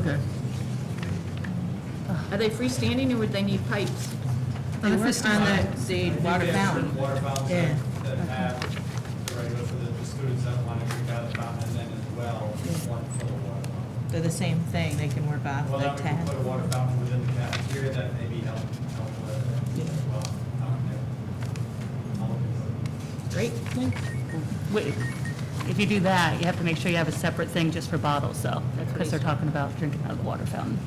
Okay. Are they freestanding or would they need pipes? They work on that Zade water fountain. Water fountains Yeah. that- that have, the regular for the the students that want to drink out of the fountain, and then as well, one for the water fountain. They're the same thing, they can work off Well, the now we can tab. put a water fountain within the cafeteria, that maybe help, help with it as well. out there. All of it. Great. Wait, If you do that, you have to make sure you have a separate thing just for bottles, though, because they're talking about drinking out of the water fountain.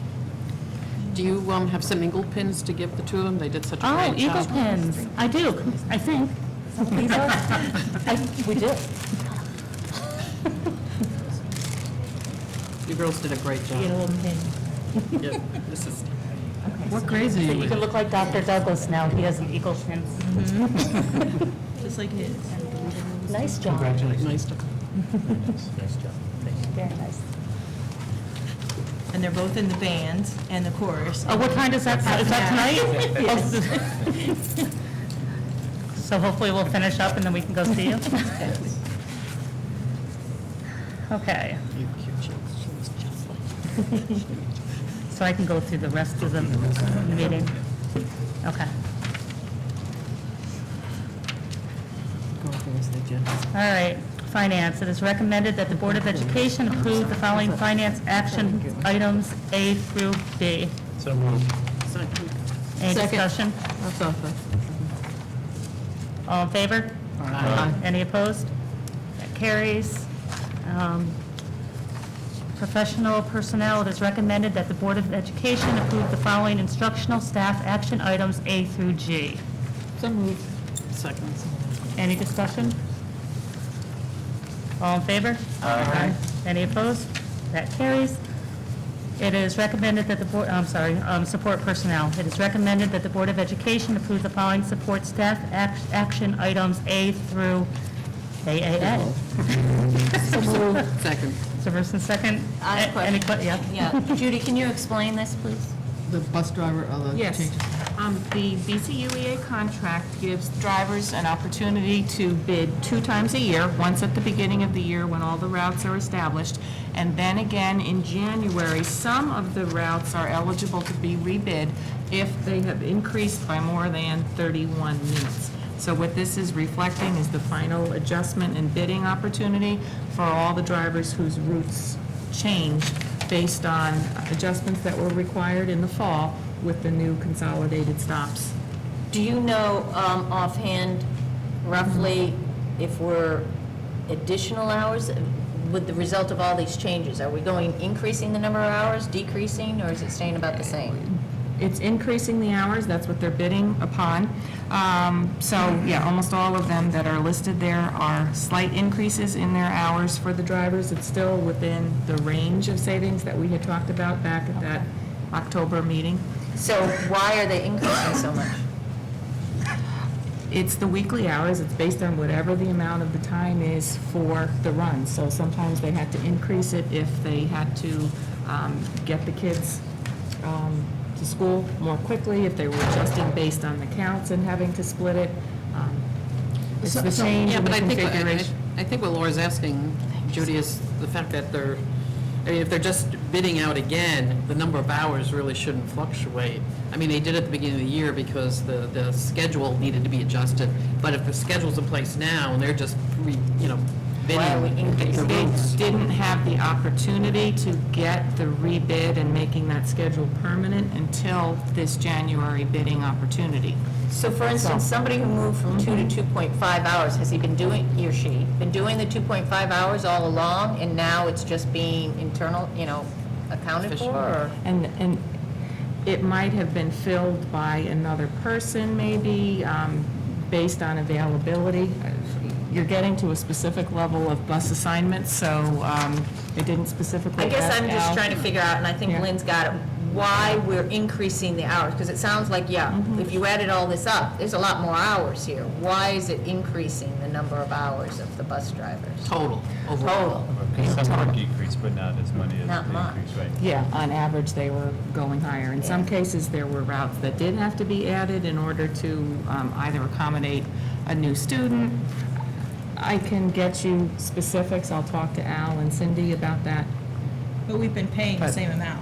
Do you um, have some Eagle pins to give the two of them? They did such a Oh, great job. Eagle pins, I do, I think. I- We do. You girls did a great job. Yellow pin. Yep, This is, What grades are you You can look like Dr. Douglas now, he has an Eagle pins. Just like his. Nice job. nice to, Very nice. And they're both in the band and the chorus. Oh, what time does that, is that tonight? So hopefully we'll finish up and then we can go see you. Okay. So I can go through the rest of the meeting? Okay. All right, finance. It is recommended that the Board of Education approve the following finance action items A through B. So moved. Any Second. discussion? that's all. All in favor? Aye. Any opposed? That carries. Um, Professional personnel, it is recommended that the Board of Education approve the following instructional staff action items A through G. So moved. Second. Any discussion? All in favor? Aye. Any opposed? That carries. It is recommended that the board, I'm sorry, um, support personnel. It is recommended that the Board of Education approve the following support staff ac- action items A through AAA. Second. So first and second? I have a Any que- Yeah. Yeah, Judy, can you explain this, please? The bus driver, all the Yes. Um, The BCUEA E contract gives drivers an opportunity to bid two times a year, once at the beginning of the year when all the routes are established, and then again in January, some of the routes are eligible to be rebid if they have increased by more than 31 minutes. So what this is reflecting is the final adjustment and bidding opportunity for all the drivers whose routes change based on adjustments that were required in the fall with the new consolidated stops. Do you know um, offhand roughly if we're additional hours with the result of all these changes? Are we going, increasing the number of hours, decreasing, or is it staying about the same? It's increasing the hours, that's what they're bidding upon. Um, So, yeah, almost all of them that are listed there are slight increases in their hours for the drivers. It's still within the range of savings that we had talked about back at that October meeting. So why are they increasing so much? It's the weekly hours, it's based on whatever the amount of the time is for the run. So sometimes they had to increase it if they had to um, get the kids um, to school more quickly, if they were adjusting based on the counts and having to split it. Um, It's the change Yeah, in the but I think, uh, I- I configuration. I think what Laura's asking, Judy, is the fact that they're, I mean, if they're just bidding out again, the number of hours really shouldn't fluctuate. I mean, they did at the beginning of the year because the, the schedule needed to be adjusted, but if the schedule's in place now and they're just, re- you know, Why are we bidding, increasing? the They routes. didn't have the opportunity to get the rebid and making that schedule permanent until this January bidding opportunity. So for instance, somebody who moved from two to 2.5 hours, has he been doing, he or she, been doing the 2.5 hours all along, and now it's just being internal, you know, accounted for, or? And, and it might have been filled by another person, maybe, um, based on availability. You're getting to a specific level of bus assignments, so um, it didn't specifically I guess ask I'm just Al. trying to figure out, and I think Yeah. Lynn's got it, why we're increasing the hours, because it sounds like, yeah, if you added all this up, there's a lot more hours here. Why is it increasing the number of hours of the bus drivers? total, overall. Total, Because some were decreased, but not as many as Not the much. increase, right? Yeah, on average, they were going higher. In some cases, there were routes that did have to be added in order to um, either accommodate a new student. I can get you specifics. I'll talk to Al and Cindy about that. But we've been paying the same amount